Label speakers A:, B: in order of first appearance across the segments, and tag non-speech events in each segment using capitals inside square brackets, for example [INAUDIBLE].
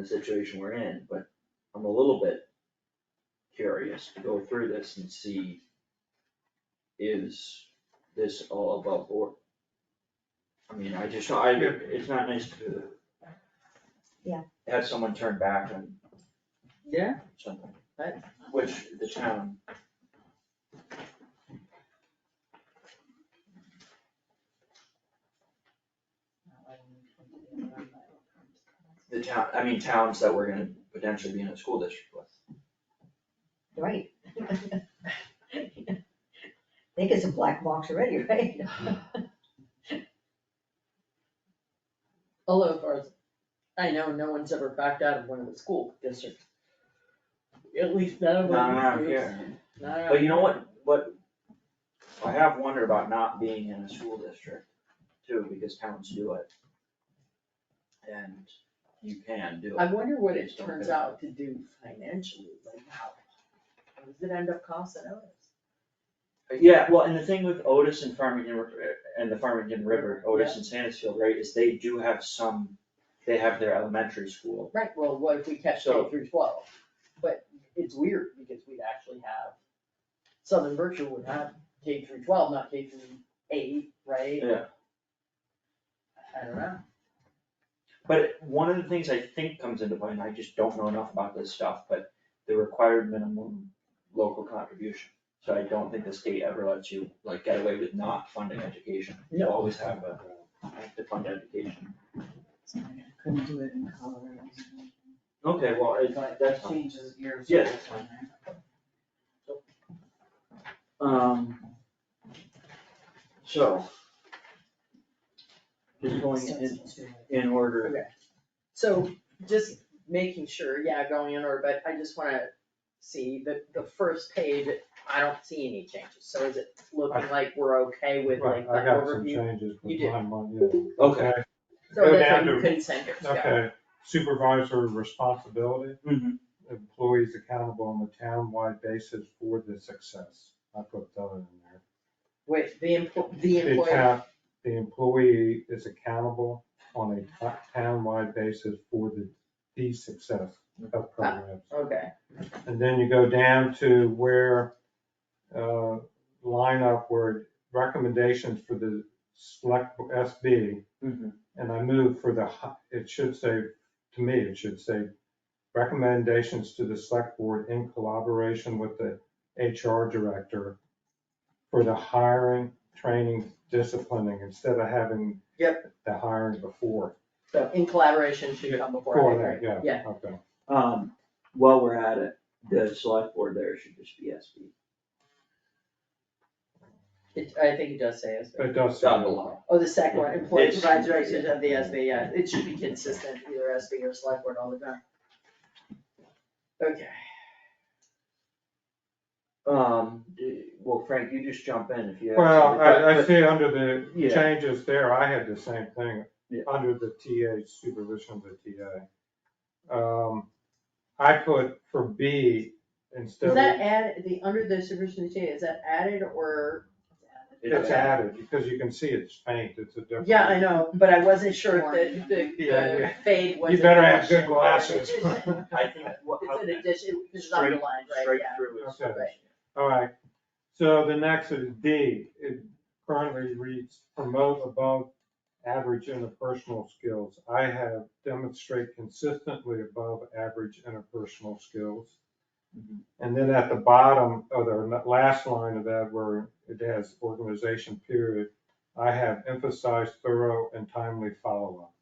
A: the situation we're in, but I'm a little bit curious to go through this and see is this all above board? I mean, I just, I, it's not nice to
B: Yeah.
A: have someone turn back on
C: Yeah,
A: something,
C: Right.
A: which the town. The town, I mean towns that we're gonna potentially be in a school district with.
B: Right. [LAUGHS] They get some black box already, right?
C: although as far as I know, no one's ever backed out of one of the school districts. At least none of them.
A: Not around
C: groups.
A: here,
C: Not around
A: but you know
C: here.
A: what, what, I have wondered about not being in a school district too, because towns do it. And you can do
C: I
A: it,
C: wonder what it turns out to do financially, like how, what does it end up costing us?
A: But yeah, well, and the thing with Otis and Farmington, Ri- and the Farmington River, Otis and Sanesfield, right, is they do have some, they have their elementary school
C: Right, well, what if we catch K
A: So-
C: through twelve? But it's weird because we'd actually have, Southern Berkshire would have K through twelve, not K through eight, right?
A: Yeah.
C: I don't know.
A: But one of the things I think comes into play, and I just don't know enough about this stuff, but the required minimum local contribution. So I don't think the state ever lets you like get away with not funding education. You
C: No.
A: always have a, have to fund education.
D: Couldn't do it in Colorado.
A: Okay, well, it's
D: But
A: that's
D: that
A: fine.
D: changes years.
A: Yeah, that's fine. Um. So. Just going in, in order,
C: So just making sure, yeah, going in order, but I just wanna see the, the first page, I don't see any changes. So is it looking like we're okay with like
E: Right,
C: the
E: I got some
C: overview?
E: changes
C: You
E: with
C: did.
E: mine, one, yeah.
A: okay.
C: So
E: Go
C: that's
E: down
C: like
E: to-
C: consent, yeah.
E: Okay, supervisor responsibility,
A: Mhm.
E: employees accountable on the town-wide basis for the success. I put that in there.
C: Wait, the employ, the
E: The
C: employer,
E: town- The employee is accountable on a to- town-wide basis for the, the success of programs.
C: okay.
E: And then you go down to where, uh, line up where recommendations for the select SB
A: Mhm.
E: And I move for the, hi- it should say, to me, it should say, recommendations to the select board in collaboration with the HR director for the hiring, training, disciplining, instead of having the hiring before.
C: So in collaboration should come before, I
E: Before
C: agree.
E: that,
C: yeah.
E: yeah, okay.
A: Um, while we're at it, the select board there should just be SB.
C: It, I think it does say SB.
E: It does. say
A: Down
E: that.
A: below.
C: Oh, the second one, employee
A: It's-
C: provides directions of the SB, yeah, it should be consistent, either SB or select board all the time. Okay,
A: Um, d- well, Frank, you just jump in if you have.
E: Well,
A: something, but-
E: I, I
A: but-
E: see under the
A: Yeah.
E: changes there, I had the same thing,
A: Yeah.
E: under the TA supervision of the TA. Um, I put for B instead
C: is
E: of.
C: that add, the, under the supervision of the TA, is that added or?
E: It's added, because you can see it's faint, it's a different.
C: Yeah, I know, but I wasn't sure if the, the-
E: Yeah,
C: the
E: yeah.
C: fade was.
E: You better have
C: addition
E: good
C: or
E: glasses.
C: addition. It's
A: I think what.
C: an addition, it's
A: straight-
C: underlined, right,
A: Straight
C: yeah.
A: through is.
E: Okay. All right, so the next is D, it currently reads promote above average interpersonal skills. I have demonstrate consistently above average interpersonal skills.
A: Mhm.
E: And then at the bottom, of the last line of that where it has organization period, I have emphasized thorough and timely follow-up.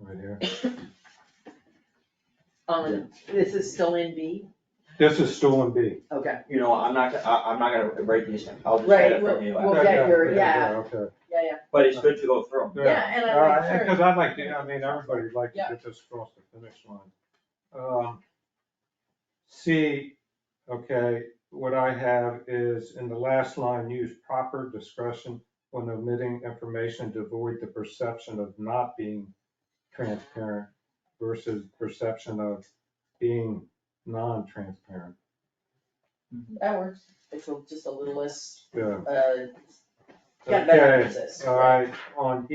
E: Right here.
C: Um, this is still in B,
E: This is still in B.
C: okay,
A: You know, I'm not, gonna- I, I'm not gonna write these, I'll just
C: Right,
A: get it from you.
C: We'll get your-
E: Okay.
C: yeah, yeah,
A: But it's good to go through them.
C: Yeah, and I like her.
E: Because I'd like to, Uh, I mean, everybody would like to
C: Yeah.
E: get this across the finish line. Um, C, okay, what I have is in the last line, use proper discretion when omitting information to avoid the perception of not being transparent versus perception of being non-transparent.
C: that works, it's a- just a little less
E: Yeah,
C: uh, Yeah, that
E: Okay,
C: exists,
E: All
C: right.
E: right, on E